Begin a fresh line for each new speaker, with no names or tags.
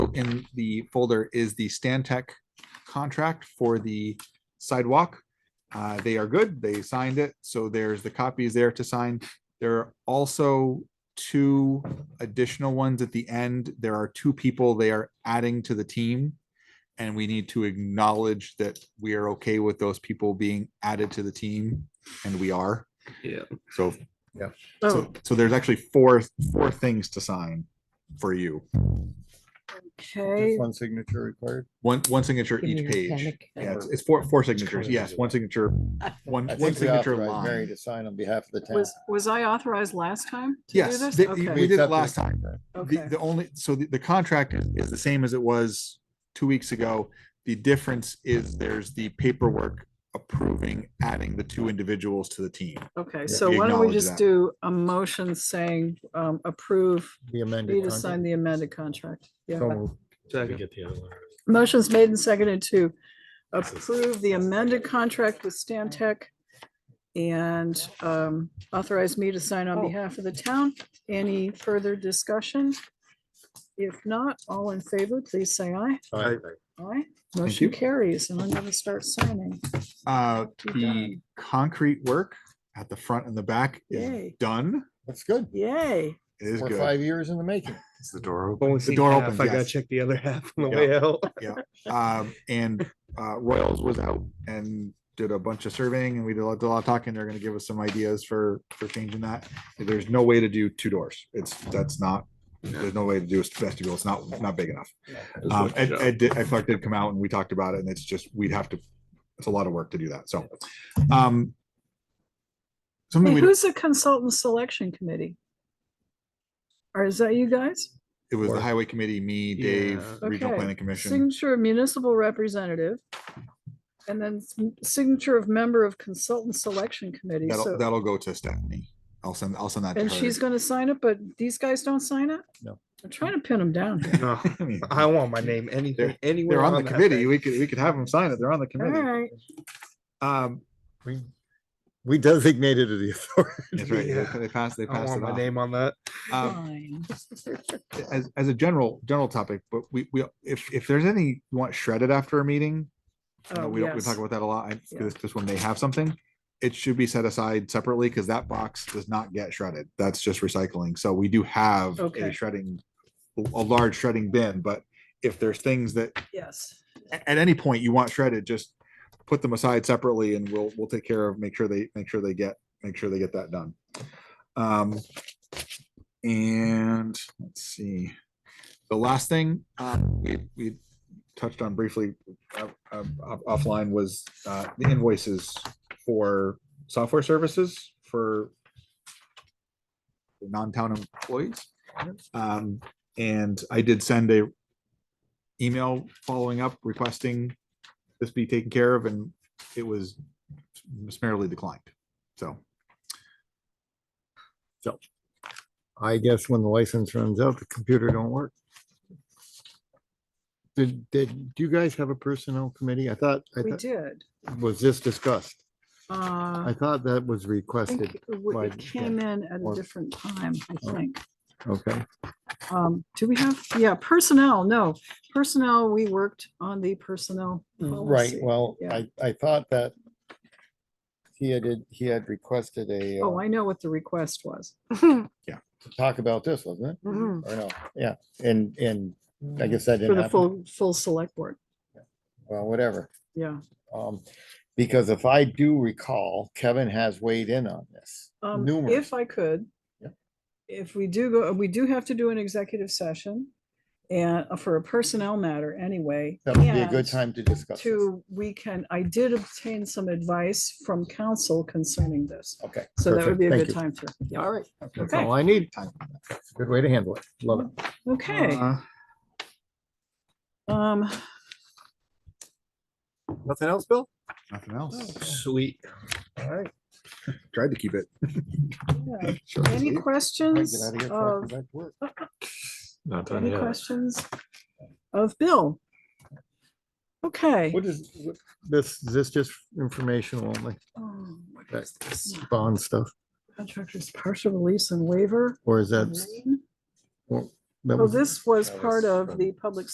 in the folder is the Stantec contract for the sidewalk. Uh, They are good. They signed it. So there's the copies there to sign. There are also two additional ones at the end. There are two people they are adding to the team. And we need to acknowledge that we are okay with those people being added to the team and we are.
Yeah.
So,
Oh,
so, so there's actually four, four things to sign for you.
okay.
one signature required.
One, one signature
Give me
each
your
page.
panic.
Yeah, it's, it's four, four signatures. Yes, one signature, one,
I
one
think we
signature
authorized Mary
line.
to sign on behalf of the town.
Was, was I authorized last time? to do
Yes,
this?
they- we
Okay,
did it
accepted
last time. The,
okay.
the only, so the, the contract is- is the same as it was two weeks ago. The difference is there's the paperwork approving adding the two individuals to the team.
Okay,
Yeah,
so
we
why don't we
acknowledge
just
that.
do a motion saying um, approve
The amended.
me to sign
contract.
the amended contract? Yeah.
Second.
Motion's made and seconded to approve the amended contract with Stan Tech and um, authorize me to sign
Oh.
on behalf of the town. Any further discussion? If not, all in favor, please say aye.
Aye.
Aye.
you.
Motion carries and I'm gonna start signing.
Uh, the
done.
concrete work at the front and the back is
Yay.
done.
That's good.
Yay.
It is
We're
good.
five years in the making.
Is the door open?
Only
The
see
door
half.
opens,
I gotta
yes.
check the other half on the
Yeah.
way out.
Um, and, uh, Royals was out and did a bunch of surveying and we did a lot did a lot of talking. They're gonna give us some ideas for, for changing that. There's no way to do two doors. It's, that's not, there's no way to do a vestibule. It's not, not big enough. Um, Ed, Ed, did- Ed Clark did come out and we talked about it and it's just, we'd have to, it's a lot of work to do that, so. um, Something
Hey,
we, don't-
who's the consultant selection committee? Or is that you guys?
it was the highway committee, me, Dave,
Yeah.
regional
Okay.
planning commission.
Signature of municipal representative. And then s- signature of member of consultant selection committee.
That'll,
So,
that'll go to Stephanie. I'll send, I'll send that to
and she's
her.
gonna sign it, but these guys don't sign it?
No.
I'm trying to pin them down. here.
No,
I mean,
I want my name anything, anywhere.
They're on the
that
committee.
thing.
We could, we could have them sign it. They're on the
All
committee.
right,
Um,
We, we designated it the
that's right. They-
Yeah.
They passed, they
I
passed
want
it
my
on.
name on that.
Um,
fine.
as, as a general, general topic, but we, we, if, if there's any, you want shredded after a meeting, I know
Oh,
we, don't- we
yes.
talk about that a lot. I,
Yeah.
this, this one may have something. It should be set aside separately because that box does not get shredded. That's just recycling. So we do have
Okay.
a shredding, a large shredding bin, but if there's things that,
Yes.
a- at any point you want shredded, just put them aside separately and we'll, we'll take care of, make sure they, make sure they get, make sure they get that done. Um, and let's see, the last thing, um, we, we touched on briefly uh, uh, off- offline was, uh, the invoices for software services for non-town employees. Um, and I did send a email following up requesting this be taken care of and it was summarily declined. So
I guess when the license runs out, the computer don't work. Did, did, do you guys have a personnel committee? I thought, I
We
thought,
did.
was this discussed? I
Uh, I
thought that was requested.
think it w-
by-
it came in at a
or-
different time, I think.
Okay,
Um, do we have, yeah, personnel, no, personnel, we worked on the personnel.
right.
policy.
Well,
Yeah.
I, I thought that he had, he had requested a,
Oh,
uh,
I know what the request was.
talk about this, wasn't it?
For
Or no? Yeah, and, and I guess that didn't
the
happen.
full, full select board,
Well, whatever.
yeah.
Um, because if I do recall, Kevin has weighed in on this.
Um,
numerous.
if I could.
Yeah.
If we do go, we do have to do an executive session and uh, for a personnel matter anyway.
That would be a
and
good time to discuss this.
To, we can, I did obtain some advice from council concerning this,
Okay.
so that
perfect.
would be a
Thank
good
you.
time for, yeah, all right,
That's
Okay.
all I need. Good way to handle it. Love it.
okay,
uh,
Uh,
um,
Mm-hmm. Nothing else, Bill?
nothing else.
Sweet.
All right.
Tried to keep it.
yeah.
short and
any
sweet.
I
questions
get out of here before I
of
go back to work.
Not done
Any
yet.
questions of Bill? Okay.
What is, what- this, this just informational only,
Oh, what
that
is this?
bond stuff,
Contractors partial release and waiver.
or is that?
Lorraine?
well, that
Oh,
was-
this was
That
part
was
of
from-
the public